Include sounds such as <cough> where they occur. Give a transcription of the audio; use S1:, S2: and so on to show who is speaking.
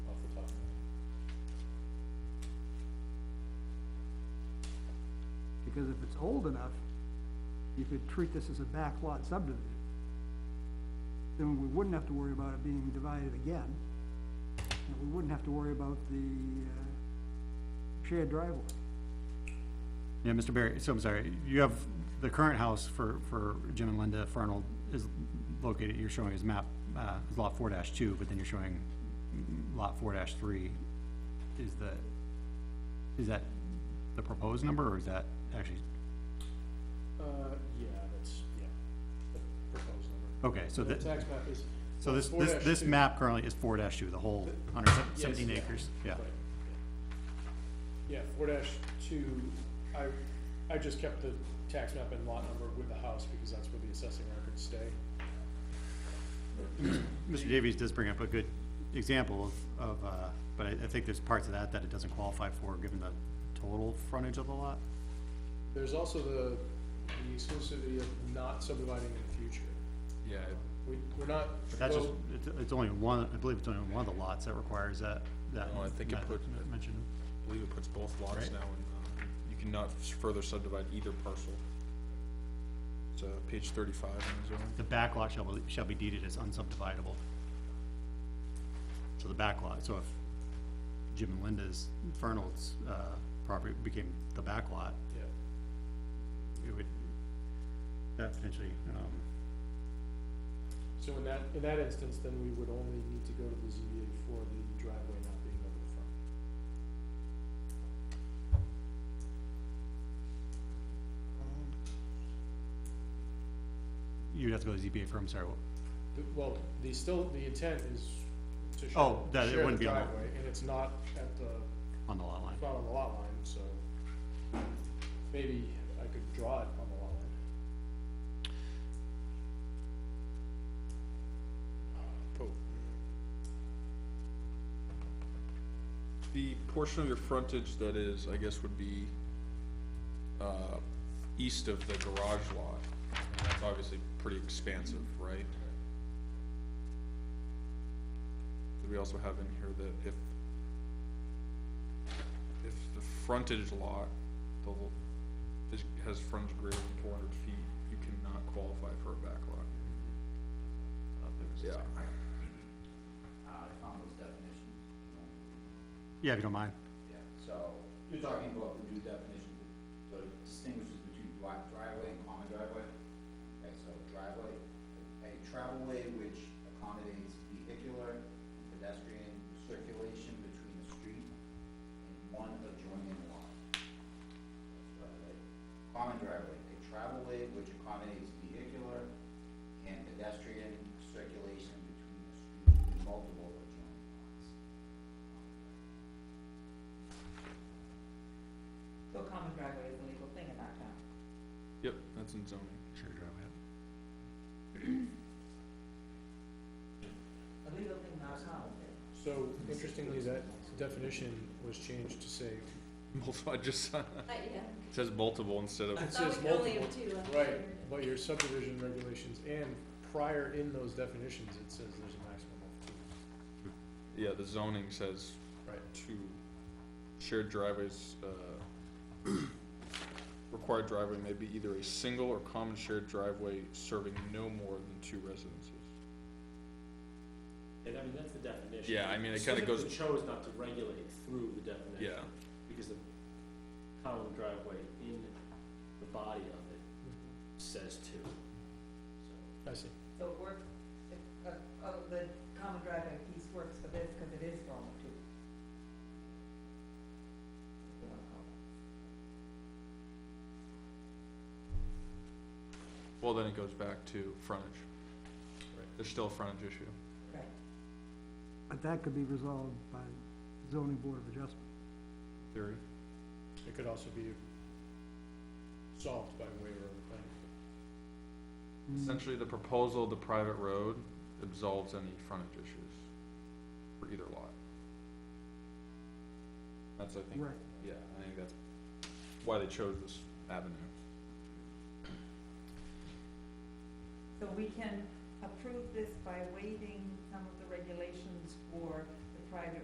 S1: because if it's old enough, you could treat this as a backlot subdivision. Then we wouldn't have to worry about it being divided again, and we wouldn't have to worry about the, uh, shared driveway.
S2: Yeah, Mr. Barry, so I'm sorry, you have, the current house for, for Jim and Linda Farnold is located, you're showing as map, uh, is lot four dash two, but then you're showing lot four dash three. Is the, is that the proposed number, or is that actually,
S3: Uh, yeah, that's, yeah, the proposed number.
S2: okay, Oh, so
S3: The
S2: that,
S3: tax map is,
S2: so this, this, this
S3: 4-2.
S2: map currently is four dash two, the whole hundred seventeen
S3: Yes, yeah.
S2: acres, yeah.
S3: right, yeah. Yeah, four dash two, I, I just kept the tax map and lot number with the house because that's where the assessing records stay.
S2: Mr. Davies does bring up a good example of, of, uh, but I, I think there's parts of that that it doesn't qualify for, given the total frontage of the lot.
S3: There's also the, the exclusivity of not subdividing in the future.
S4: Yeah,
S3: We, we're not.
S2: But That's just,
S3: oh,
S2: it's, it's only one, I believe it's only one of the lots that requires that, that.
S4: No, Oh, I think it
S2: that-
S4: put-
S2: that Mentioned,
S4: I believe it puts both lots
S2: Right.
S4: now, and um, you cannot s- further subdivide either parcel. It's, uh, page thirty-five in the zone.
S2: the back lot shall be, shall be deeded as unsubdividable. So the back lot, so if Jim and Linda's, Fernald's, uh, property became the back lot,
S3: Yeah,
S2: it would, that potentially, um,
S3: so in that, in that instance, then we would only need to go to the ZBA for the driveway not being over the front.
S2: you'd have to go to ZBA for, I'm sorry, what-
S3: The- Well, the still, the intent is to share.
S2: Oh, that it
S3: share the
S2: wouldn't be on the-
S3: driveway, And it's not at the,
S2: on the lot line.
S3: it's not on the lot line, so maybe I could draw it on the lot line.
S4: Oh. The portion of your frontage that is, I guess, would be, uh, east of the garage lot, that's obviously pretty expansive, right? Do we also have in here that if, if the frontage lot, the, l- is, has frontage greater than four hundred feet, you cannot qualify for a back lot? Yeah.
S5: uh, I found those definitions.
S2: Yeah, if you don't mind.
S5: Yeah. So, you're talking about the new definition, that distinguishes between dri- driveway and common driveway? Okay, so driveway, a travelway which accommodates vehicular, and pedestrian circulation between a street and one adjoining lot. That's driveway. Common driveway, a travelway which accommodates vehicular and pedestrian circulation between a street and multiple adjoining lots.
S6: So common driveway is the legal thing in our town.
S4: Yep, that's in zoning.
S2: Sure, driveway.
S6: The legal thing in our town is it.
S3: So interestingly, that definition was changed to say,
S4: Multiple, I <laughs> just, uh, it
S7: Yeah.
S4: says multiple instead of,
S3: it says multiple.
S7: two. I thought
S3: Right,
S7: we were-
S3: but your subdivision regulations and prior in those definitions, it says there's a maximum of two.
S4: yeah, the zoning says
S3: Right.
S4: two. Shared driveways, uh, <clears throat> required driveway may be either a single or common shared driveway serving no more than two residences.
S8: And I mean, that's the definition.
S4: Yeah, I mean, it kinda
S8: Specifically chose not to regulate through the
S4: Yeah,
S8: definition. Because the common driveway in the body of it says two. So,
S3: I see.
S6: So it works, it, uh, uh, the common driveway piece works for this because it is normal too.
S4: well, then it goes back to frontage. There's still a frontage issue.
S6: Right.
S1: But that could be resolved by zoning board of adjustment.
S4: Theory.
S3: It could also be solved by waiver of the planning. board.
S4: Essentially, the proposal, of the private road absolves any frontage issues for either lot. That's, I think,
S1: Right.
S4: yeah, I think that's why they chose this avenue.
S6: So we can approve this by waiving some of the regulations for the private